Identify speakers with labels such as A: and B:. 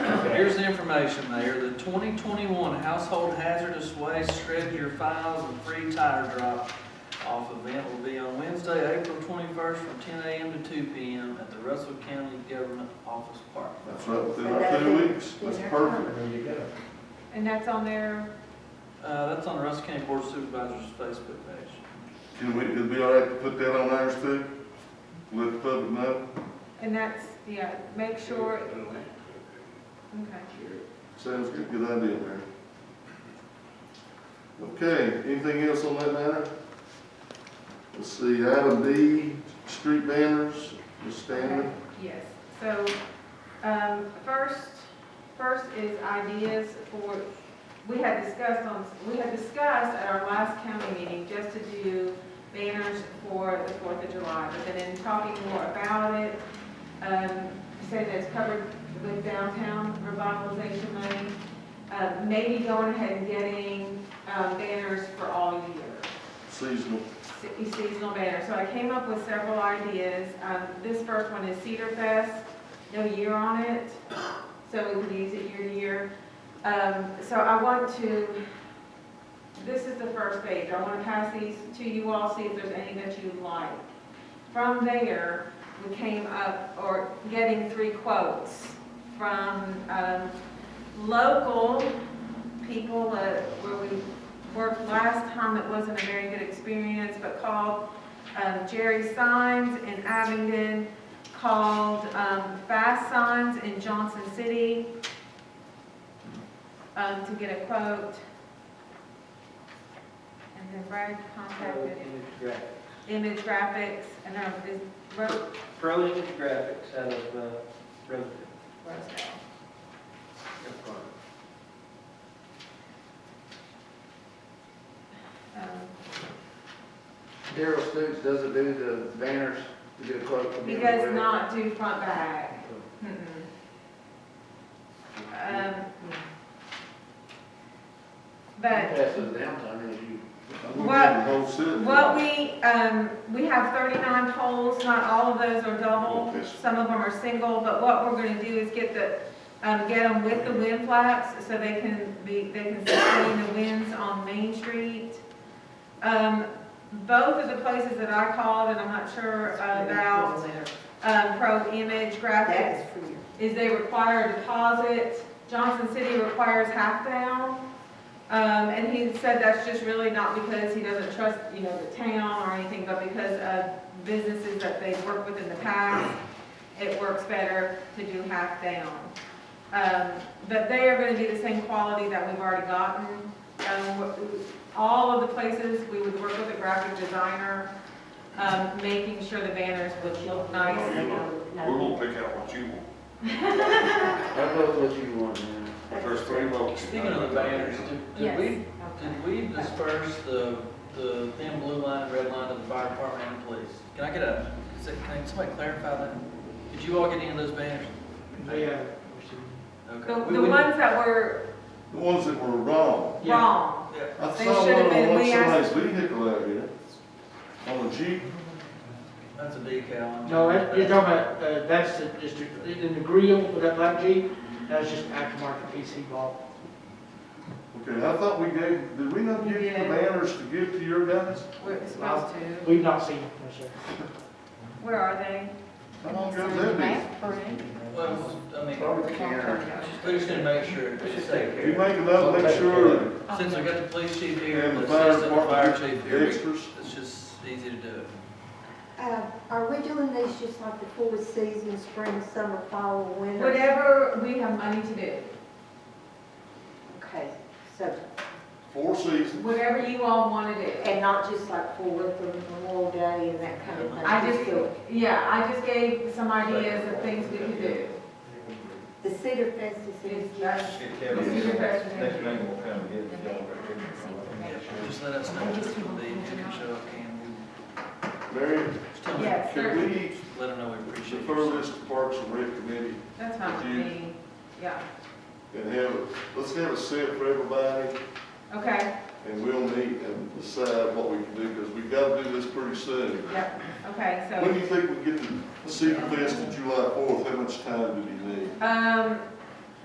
A: here's the information, Mayor, the twenty twenty-one household hazardous waste shred your files and free tire drop off event will be on Wednesday, April twenty-first from ten AM to two PM at the Russell County Government Office Park.
B: That's right, within our two weeks, that's perfect.
C: There you go.
D: And that's on their
A: Uh, that's on the Russell County Board of Supervisors Facebook page.
B: Can we, it'd be all right to put that on ours too? Let the public know?
D: And that's, yeah, make sure, okay.
B: Sounds good, good idea, Mayor. Okay, anything else on that matter? Let's see, item D, street banners, Ms. Stanley.
D: Yes, so, um, first, first is ideas for, we had discussed on, we had discussed at our last county meeting just to do banners for the Fourth of July, but then in talking more about it, um, said that's covered with downtown revitalization money, uh, maybe going ahead and getting, um, banners for all year
B: seasonal.
D: se- seasonal banner. So I came up with several ideas. Um, This first one is Cedar Fest, no year on it, so we can use it year to year. Um, So I want to, this is the first page. I want to pass these to you all, see if there's any that you like. From there, we came up, or getting three quotes from um, local people uh, where we worked last time, it wasn't a very good experience, but called um, Jerry Signs in Abingdon, called um, Fast Signs in Johnson City um, to get a quote. And then Brad contacted Image Graphics, and I was, wrote
E: Pro Image Graphics out of uh, Rosedale.
D: Rosedale. Um,
C: Daryl Stoops doesn't do the banners, to get a quote from
D: He
C: him.
D: does not do front back. Mm-mm. Um, But
C: Passes downtime, as you.
D: What-
B: Whole city.
D: what we, um, we have thirty-nine poles, not all of those are double,
B: Yes.
D: some of them are single, but what we're gonna do is get the, um, get them with the wind flaps, so they can be, they can sustain the winds on Main Street. Um, both of the places that I called, and I'm not sure uh, about, um, Pro Image Graphics,
F: That is for you.
D: is they require a deposit. Johnson City requires half down. Um, and he said that's just really not because he doesn't trust, you know, the town or anything, but because of businesses that they've worked with in the past, it works better to do half down. Um, but they are gonna be the same quality that we've already gotten. Um, what- all of the places, we would work with a graphic designer, um, making sure the banners would look nice.
G: We're gonna pick out what you want.
C: I know what you want, man.
G: If There's three votes.
A: Speaking of the banners, did- did
F: Yes,
A: we
F: okay.
A: Did we disperse the, the thin blue line, red line to the fire department and the police? Can I get a, is it- can somebody clarify that? Did you all get any of those banners?
H: uh,
E: Yeah.
A: Okay.
D: The,
A: We-
D: the
A: we-
D: ones that were
B: The ones that were wrong.
E: Yeah.
D: wrong,
A: Yeah.
B: I
D: They
B: saw
D: should have
B: one on
D: been-
B: one
D: we asked-
B: somebody's vehicle out here, on a Jeep.
A: That's a decal.
H: No, that- you're talking about, uh, that's the- just, the- in the grill with that black Jeep, that's just aftermarket PC ball.
B: Okay, I thought we gave, did we not give you the
D: Yeah.
B: banners to give to your guys?
D: we're supposed to,
H: We've not seen, it, no, sir.
D: where are they?
B: How long ago did that
A: Well, I mean,
C: Probably can't.
A: we just need to make sure it's safe
B: be? You
A: here.
B: make it up, make sure, that-
A: Since we got the police chief here, and
B: and the
A: the
B: fire
A: assistant fire
B: department,
A: chief
B: the
A: here, we-
B: extras.
A: it's just easy to do it.
F: Uh, Are we doing these just like the four seasons, spring, summer, fall, winter?
D: Whatever we have money to do,
F: Okay, so,
B: Four seasons.
D: whatever you all wanna do.
F: and not just like for Winter Memorial Day and that kind of thing?
D: I just,
F: the-
D: yeah, I just gave some ideas of things we could do.
F: The Cedar Fest is in
D: It's just- it's your question.
G: Next man will come get it. y'all.
A: Yeah, Just let us know if it's gonna be, if you can show up, can
B: Mary,
A: we, just tell them,
D: Yes,
B: can
D: sir,
B: we
A: let them know we appreciate
B: defer
A: you.
B: this to Parks and Rec Committee
D: that's fine with me, yeah,
B: and have, it- let's have a set for everybody
D: okay,
B: and we'll meet and decide what we can do, because we've got to do this pretty soon.
D: yep, okay, so.
B: When do you think we get the secret list of July fourth? How much time do we need?
D: Um,